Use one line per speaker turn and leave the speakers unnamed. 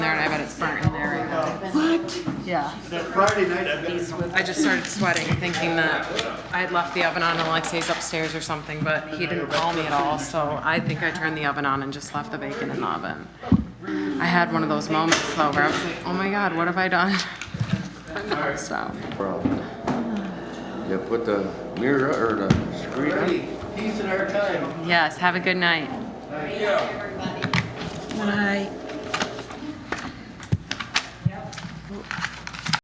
Yeah.
That Friday night, I've got
He's
to
with
I just started sweating, thinking that I had left the oven on and Alexei's upstairs or something, but he didn't call me at all, so I think I turned the oven on and just left the bacon in the oven. I had one of those moments though where I was like, oh my god, what have I done? So,
problem. You put the mirror or the screen on.
Ready, peace in our time.
yes, have a good night.
Good night.